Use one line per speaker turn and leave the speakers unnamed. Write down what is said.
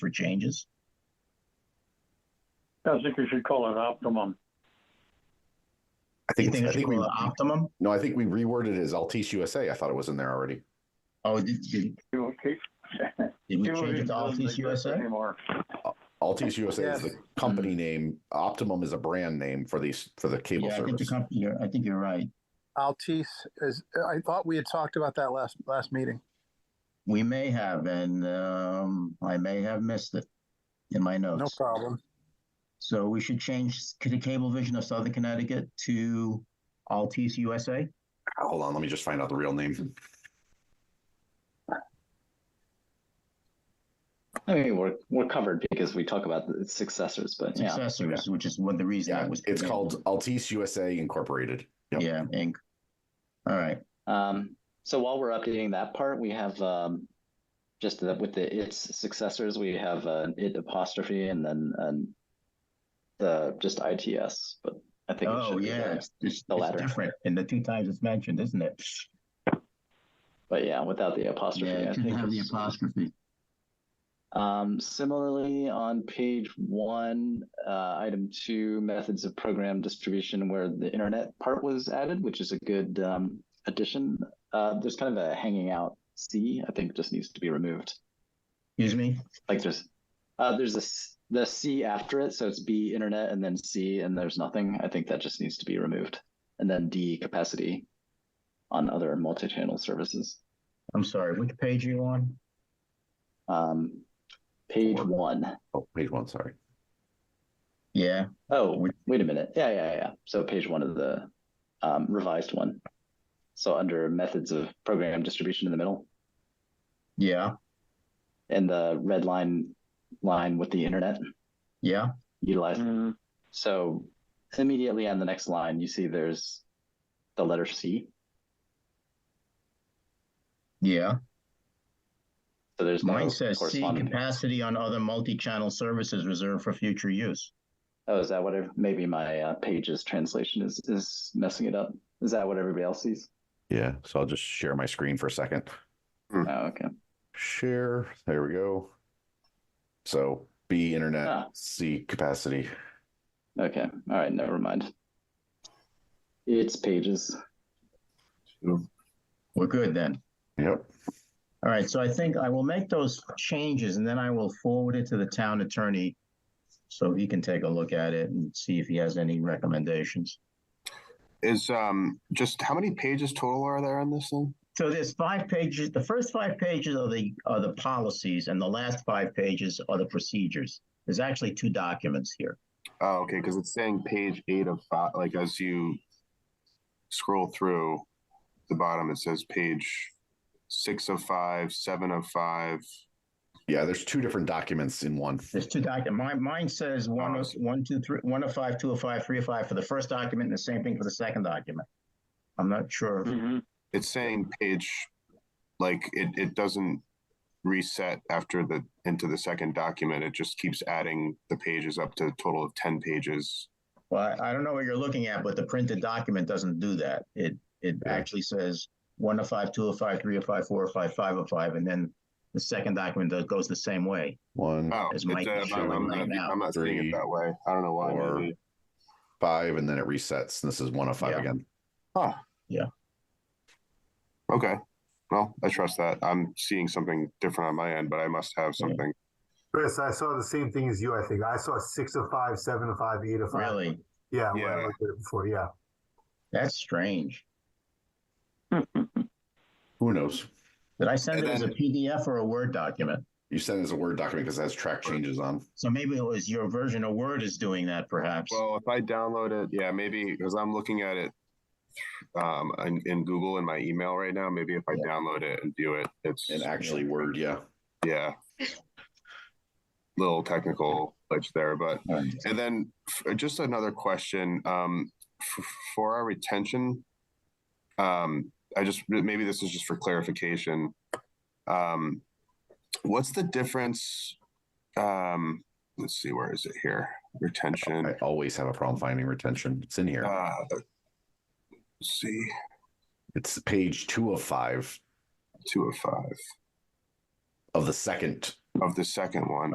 for changes?
I think you should call it optimum.
I
Do you think
think, I
it should
think
be
we,
an optimum?
no, I think we reworded it as Altice USA. I thought it was in there already.
Oh, did, did,
You will keep.
did we
you will
change it
keep
to Altice
doesn't
USA?
exist Anymore.
Altice USA is
Yes.
the company name. Optimum is a brand name for these, for the cable
Yeah, I think the
service.
company, you're- I think you're right.
Altice is, I thought we had talked about that last, last meeting.
We may have, and, um, I may have missed it in my
No
notes.
problem.
So we should change the Cablevision of Southern Connecticut to Altice USA?
Ah, Hold on, let me just find out the real name.
I mean, we're we're covered because we talk about the successors, but yeah.
Successors, which is one of the reasons
Yeah,
that was.
it's called Altice USA Incorporated. Yep.
Yeah, Inc. All right,
Um, so while we're updating that part, we have um, just the, with the its successors, we have uh, it apostrophe and then and the just its. But I think it
oh,
should be
yeah,
the-
it's, it's
the
it's
latter.
different, and the two times it's mentioned, isn't it?
But yeah, without the apostrophe,
Yeah,
I
it should
think
have the
it's-
apostrophe.
Um, similarly, on page one, uh, item two, methods of program distribution, where the internet part was added, which is a good um, addition. Uh, there's kind of a hanging out C, I think just needs to be removed.
Excuse me?
Like there's, uh, there's this the C after it, so it's B internet and then C, and there's nothing. I think that just needs to be removed. And then D capacity on other multi-channel services.
I'm sorry, which page are you on?
Um, page
Four.
one.
Oh, page one, sorry.
Yeah,
Oh,
Which-
wait a minute. Yeah, yeah, yeah. So page one of the um, revised one. So under methods of program distribution in the middle
yeah,
and the red line line with the internet
yeah, Mm-hmm.
utilized.
Mhm.
So immediately on the next line, you see there's the letter C.
yeah.
So there's no
Mine says C,
corresponding.
capacity on other multi-channel services reserved for future use.
oh, is that what? ev- Maybe my uh, pages translation is is messing it up. Is that what everybody else sees?
Yeah, so I'll just share my screen for a second.
Oh, okay.
Share, there we go. So B internet,
Ah.
C capacity.
Okay. All right. Never mind. It's pages.
We're good then.
Yep.
All right, so I think I will make those changes and then I will forward it to the town attorney. So he can take a look at it and see if he has any recommendations.
Is um just how many pages total are there on this thing?
So there's five pages, the first five pages are the, are the policies and the last five pages are the procedures. There's actually two documents here.
Oh, okay, because it's saying page eight of five. Like as you scroll through the bottom, it says page six of five, seven of five.
Yeah, there's two different documents in one.
There's two docu, mine, mine says
Oh,
one, of- one, two, three, one of five, two of five, three of five for the first document and the same thing for the second document. I'm not sure.
Mhm.
It's saying page like it it doesn't reset after the into the second document. It just keeps adding the pages up to a total of ten pages.
Well, I I don't know what you're looking at, but the printed document doesn't do that. It, it
Yeah.
actually says one of five, two of five, three of five, four of five, five of five, and then the second document that goes the same way.
One,
Oh,
As
it's,
Mike is
uh, I'm,
showing
I'm
right
not,
now.
I'm not seeing
Three,
it that way. I don't know why.
four.
maybe.
five, and then it resets. This is one of five
Yeah.
again.
Okay. Well, I trust that. I'm seeing something different on my end, but I must have
Yeah.
something.
Chris, I saw the same thing as you. I think I saw six of five, seven of five, eight of five.
Really?
Yeah, when
Yeah.
I looked at it before. Yeah,
That's strange.
Who knows?
Did I send
And
it as a
then-
PDF or a Word document?
You send it as a Word document because it has track changes on.
So maybe it was your version of Word is doing that perhaps.
Well, if I download it, yeah, maybe because I'm looking at it um, in, in Google in my email right now. Maybe if I
Yeah.
download it and do it, it's
And actually, Word, yeah.
yeah, little technical glitch there. But
All right.
and then f- just another question um, f- for our retention. Um, I just maybe this is just for clarification. Um, what's the difference? Um, let's see, where is it here? Retention.
I always have a problem finding retention. It's in here.
Uh, let's see,
It's page two of five
two of five
of the second
of the second one.